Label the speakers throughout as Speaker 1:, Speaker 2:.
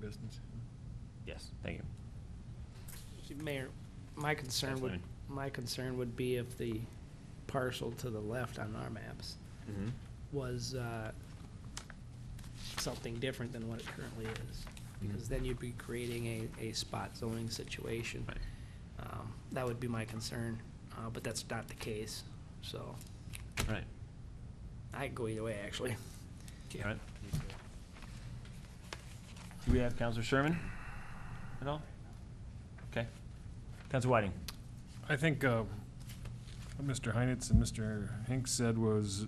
Speaker 1: business.
Speaker 2: Yes, thank you.
Speaker 3: Mayor, my concern would,
Speaker 2: Kathleen.
Speaker 3: my concern would be if the parcel to the left on our maps
Speaker 2: Mm-hmm.
Speaker 3: was uh, something different than what it currently is. Because then you'd be creating a, a spot zoning situation.
Speaker 2: Right.
Speaker 3: Um, That would be my concern, uh, but that's not the case, so
Speaker 2: Right.
Speaker 3: I could go either way, actually.
Speaker 2: All right. Do we have Counselor Sherman at all? Okay. Counselor Whiting?
Speaker 4: I think uh, what Mr. Heinitz and Mr. Hinks said was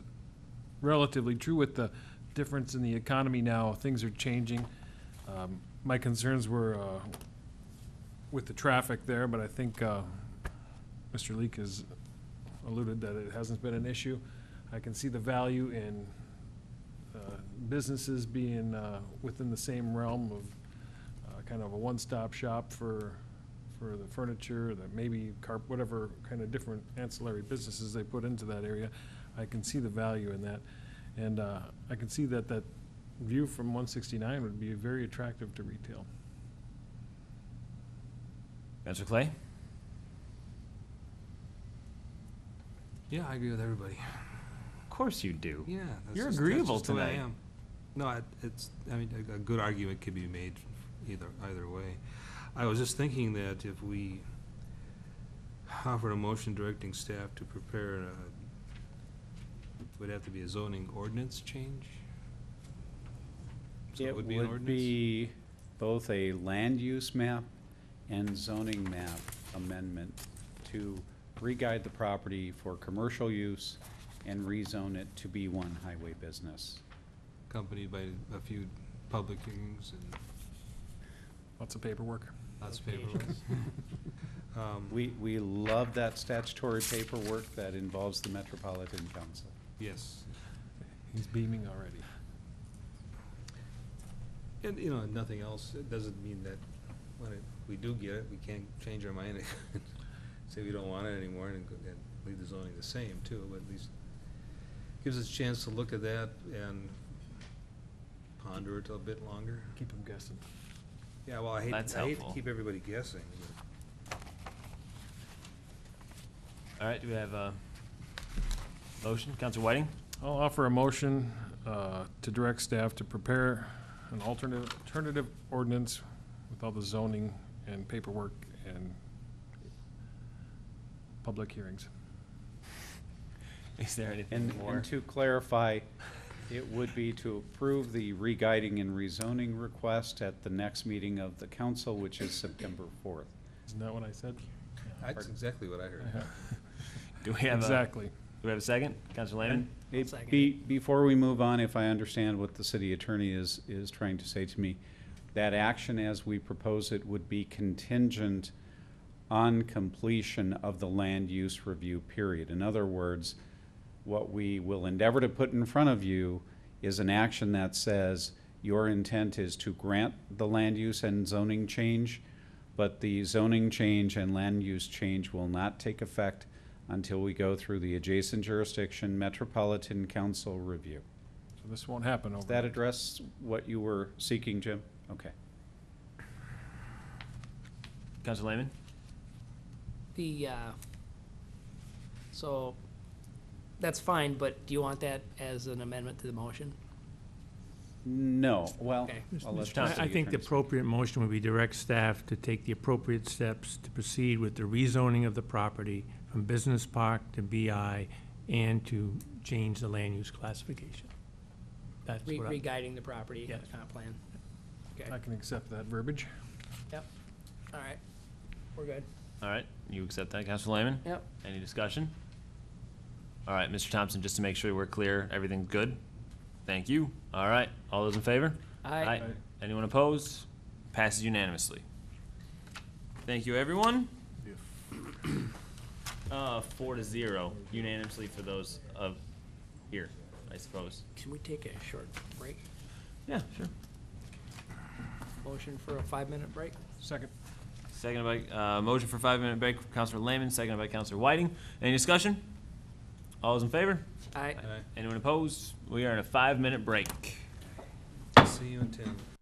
Speaker 4: relatively true with the difference in the economy now. Things are changing. Um, My concerns were uh, with the traffic there, but I think uh, Mr. Leek has alluded that it hasn't been an issue. I can see the value in uh, businesses being uh, within the same realm of uh, kind of a one-stop shop for, for the furniture, that maybe carp, whatever kind of different ancillary businesses they put into that area. I can see the value in that. And uh, I can see that that view from 169 would be very attractive to retail.
Speaker 2: Counselor Clay?
Speaker 5: Yeah, I agree with everybody.
Speaker 2: Of course you do.
Speaker 5: Yeah. that's
Speaker 2: You're
Speaker 5: just- that's
Speaker 2: agreeable
Speaker 5: just the way I
Speaker 2: tonight.
Speaker 5: am. No, I- it's, I mean, a, a good argument could be made either, either way. I was just thinking that if we offered a motion directing staff to prepare, a- would have to be a zoning ordinance change? So
Speaker 6: It
Speaker 5: an
Speaker 6: would
Speaker 5: ordinance?
Speaker 6: be both a land use map and zoning map amendment to re-guide the property for commercial use and rezone it to be one highway business.
Speaker 5: Accompanied by a few public hearings and
Speaker 4: Lots of paperwork.
Speaker 5: lots of paperwork. Um,
Speaker 6: We, we love that statutory paperwork that involves the Metropolitan Council.
Speaker 5: Yes.
Speaker 4: He's beaming already.
Speaker 5: And, you know, nothing else, it doesn't mean that when it, we do get it, we can't change our mind and say we don't want it anymore and, go- and leave the zoning the same too, but at least gives us a chance to look at that and ponder it a bit longer.
Speaker 4: Keep him guessing.
Speaker 5: Yeah, well, I hate,
Speaker 2: That's
Speaker 5: I hate to
Speaker 2: helpful.
Speaker 5: keep everybody guessing, but.
Speaker 2: All right, do we have a motion? Counselor Whiting?
Speaker 4: I'll offer a motion uh, to direct staff to prepare an alternative, alternative ordinance with all the zoning and paperwork and public hearings.
Speaker 2: Is there anything
Speaker 6: And,
Speaker 2: more?
Speaker 6: and to clarify, it would be to approve the re-guiding and rezoning request at the next meeting of the council, which is September fourth.
Speaker 4: Isn't that what I said?
Speaker 5: That's exactly what I heard.
Speaker 2: Do we have a, do
Speaker 4: Exactly.
Speaker 2: we have a second? Counselor Lehman?
Speaker 6: Hey,
Speaker 3: second
Speaker 6: Be, before we move on, if I understand what the city attorney is, is trying to say to me, that action as we propose it would be contingent on completion of the land use review period. In other words, what we will endeavor to put in front of you is an action that says your intent is to grant the land use and zoning change, but the zoning change and land use change will not take effect until we go through the adjacent jurisdiction Metropolitan Council review.
Speaker 4: So this won't happen over.
Speaker 6: Does that address what you were seeking, Jim? Okay.
Speaker 2: Counselor Lehman?
Speaker 3: The, uh, so, that's fine, but do you want that as an amendment to the motion?
Speaker 6: No, well,
Speaker 3: Okay.
Speaker 6: I'll let
Speaker 2: Mr. Thompson.
Speaker 6: the
Speaker 7: I I think the
Speaker 6: attorneys-
Speaker 7: appropriate motion would be direct staff to take the appropriate steps to proceed with the rezoning of the property from business park to BI and to change the land use classification. That's
Speaker 3: Re-
Speaker 7: what I,
Speaker 3: Re-guiding the property,
Speaker 7: Yes.
Speaker 3: comp plan? Okay,
Speaker 4: I can accept that verbiage.
Speaker 3: yep, all right, we're good.
Speaker 2: All right, you accept that, Counselor Lehman?
Speaker 3: Yep.
Speaker 2: Any discussion? All right, Mr. Thompson, just to make sure we're clear, everything's good? Thank you. All right, all those in favor?
Speaker 3: Aye.
Speaker 4: Aye.
Speaker 2: Anyone opposed? Passes unanimously. Thank you, everyone. Uh, four to zero unanimously for those of here, I suppose.
Speaker 3: Can we take a short break?
Speaker 2: Yeah, sure.
Speaker 3: Motion for a five-minute break?
Speaker 4: Second.
Speaker 2: Seconded by, uh, motion for five-minute break, Counselor Lehman, seconded by Counselor Whiting. Any discussion? All those in favor?
Speaker 3: Aye.
Speaker 5: All right,
Speaker 2: Anyone opposed? We are in a five-minute break.
Speaker 5: see you in ten.